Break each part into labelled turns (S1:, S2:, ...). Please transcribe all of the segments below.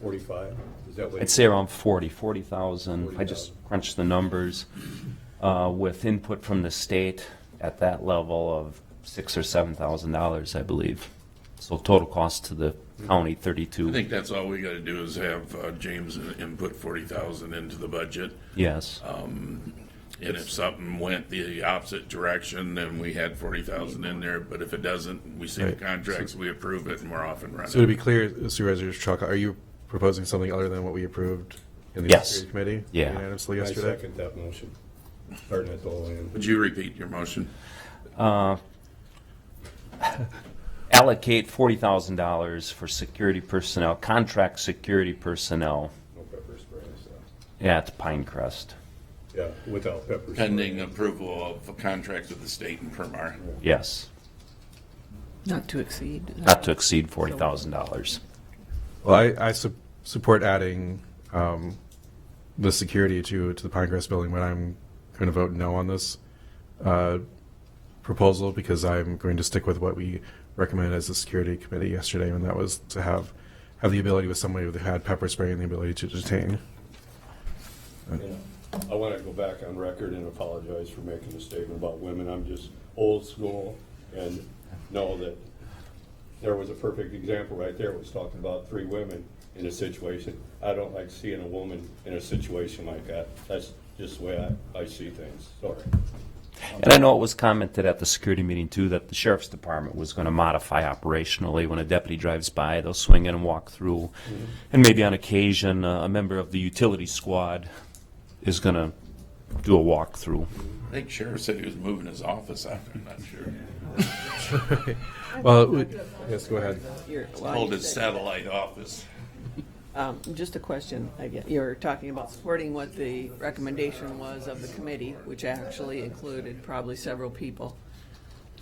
S1: forty-five? Is that what?
S2: I'd say around 40, 40,000. I just
S1: 40,000.
S2: crunched the numbers uh, with input from the state at that level of six or $7,000, I believe. So total cost to the county,
S3: I
S2: 32,
S3: think that's all we gotta do is have uh, James input forty thousand into the budget.
S2: yes.
S3: uh, And if something went the opposite direction, then we had forty thousand in there, but if it doesn't, we see the
S4: Right.
S3: contracts, we approve it and we're off and
S4: So to
S3: running.
S4: be clear, Supervisor Chaka, are you proposing something other than what we approved in the
S2: Yes.
S4: Security Committee?
S2: Yeah.
S4: Unanimously
S1: I
S4: yesterday?
S1: second that motion, starting at the low end.
S3: Would you repeat your motion?
S2: Allocate $40,000 for security personnel, contract security personnel
S1: No pepper spray, so,
S2: at Pinecrest.
S1: yeah, without pepper. spray.
S3: Pending approval of contracts with the state and Permar.
S2: Yes,
S5: Not to exceed. uh,
S2: not to exceed $40,000.
S4: Well, I, I su- support adding, um, the security to, to the Pinecrest building, but I'm going to vote no on this, uh, proposal because I'm going to stick with what we recommended as the Security Committee yesterday, and that was to have, have the ability with somebody who had pepper spray and the ability to detain.
S1: Yeah. I want to go back on record and apologize for making a statement about women. I'm just old school and know that there was a perfect example right there. It was talking about three women in a situation. I don't like seeing a woman in a situation like that. That's just the way I, I see things. Sorry.
S2: And I know it was commented at the security meeting too, that the sheriff's department was gonna modify operationally. When a deputy drives by, they'll swing in and walk through. And maybe on occasion, uh, a member of the utility squad is gonna do a walkthrough.
S3: I think Sheriff said he was moving his office out there, I'm not sure.
S4: Well, we- yes, go ahead.
S5: Oh,
S3: Hold his satellite office.
S5: Um, just a question, I get, you're talking about supporting what the recommendation was of the committee, which actually included probably several people.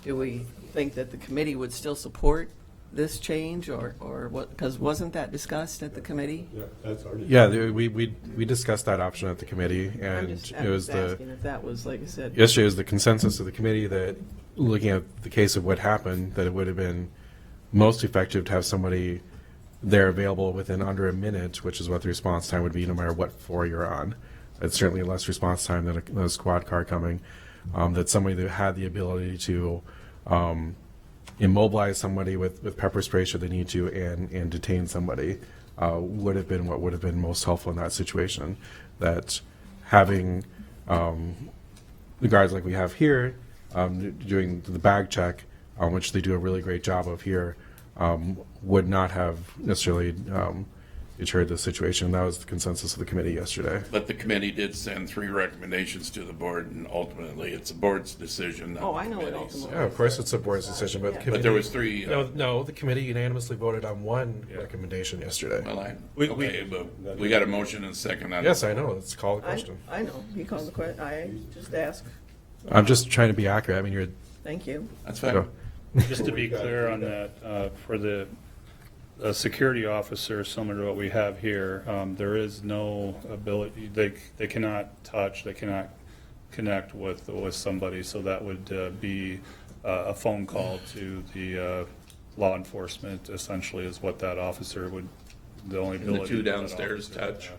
S5: Do we think that the committee would still support this change, or, or what, because wasn't that discussed at the committee?
S1: Yeah, that's our.
S4: Yeah, the- we, we, we discussed that option at the committee,
S5: I'm
S4: and
S5: just,
S4: it
S5: I'm
S4: was
S5: just
S4: the,
S5: asking if that was, like I said,
S4: yesterday was the consensus of the committee that, looking at the case of what happened, that it would have been most effective to have somebody there available within under a minute, which is what the response time would be, no matter what floor you're on. It's certainly less response time than a, than a squad car coming, um, that somebody that had the ability to, um, immobilize somebody with, with pepper spray should they need to and, and detain somebody uh, would have been what would have been most helpful in that situation. That having um, the guards like we have here um, d- doing the bag check, um, which they do a really great job of here, um, would not have necessarily um, deterred the situation. That was the consensus of the committee yesterday.
S3: But the committee did send three recommendations to the board, and ultimately, it's the board's decision. not
S5: oh,
S3: the
S5: I know it
S3: committee's.
S5: ultimately.
S4: Yeah, of course, it's the board's decision, but the committee,
S3: But there was three, uh,
S4: no, no, the committee unanimously voted on one recommendation yesterday.
S3: well, I,
S4: We- we-
S3: okay, but we got a motion and a second on.
S4: yes, I know. Let's call the
S5: I,
S4: question.
S5: I know, he called the que, I just asked,
S4: I'm just trying to be accurate. I mean, you're
S5: thank you.
S3: That's fine.
S6: Just to be clear on that, uh, for the, a security officer, similar to what we have here, um, there is no ability, they, they cannot touch, they cannot connect with, with somebody, so that would uh, be uh, a phone call to the uh, law enforcement essentially is what that officer would, the only
S3: the
S6: ability.
S3: two
S6: of that
S3: downstairs
S6: officer.
S3: touch?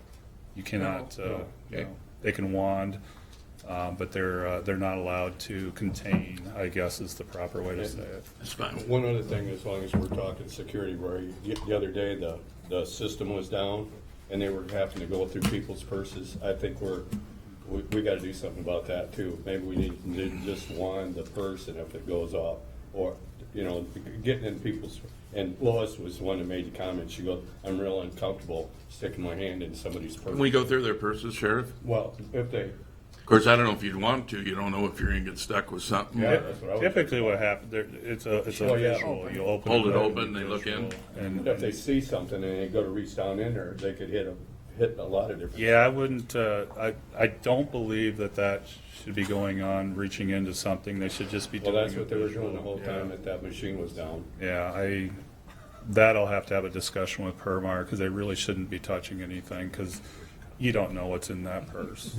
S6: You cannot, uh, you
S3: Okay.
S6: know, they can wand, uh, but they're, uh, they're not allowed to contain, I guess is the proper way to say it.
S3: That's fine.
S1: One other thing, as long as we're talking security, Rory, the the other day, the, the system was down, and they were having to go through people's purses. I think we're, we, we gotta do something about that too. Maybe we need to just wand the purse, and if it goes off, or, you know, getting in people's, and Lois was the one that made the comment, she goes, I'm real uncomfortable sticking my hand in somebody's
S3: Can we
S1: purse.
S3: go through their purses, Sheriff?
S1: Well, if they,
S3: Of course, I don't know if you'd want to. You don't know if you're gonna get stuck with something.
S1: Yeah. that's what I was-
S6: Typically what happens, there, it's a, it's a
S1: Oh, yeah.
S6: visual, you open.
S3: Hold it
S6: up,
S3: open, they look in.
S6: visual, And,
S1: if they see something and they go to reach down in there, they could hit a, hit a lot of different.
S6: yeah, I wouldn't, uh, I, I don't believe that that should be going on, reaching into something, they should just be
S1: Well,
S6: doing.
S1: that's
S6: a
S1: what they were
S6: visual,
S1: doing the whole
S6: yeah.
S1: time that that machine was down.
S6: Yeah, I, that I'll have to have a discussion with Permar, because they really shouldn't be touching anything, because you don't know what's in that purse.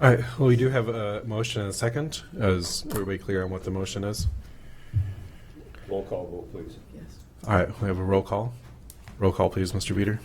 S4: All right, well, we do have a motion and a second. Is everybody clear on what the motion is?
S1: Roll call vote, please.
S5: Yes.
S4: All right, we have a roll call. Roll call, please, Mr. Beater.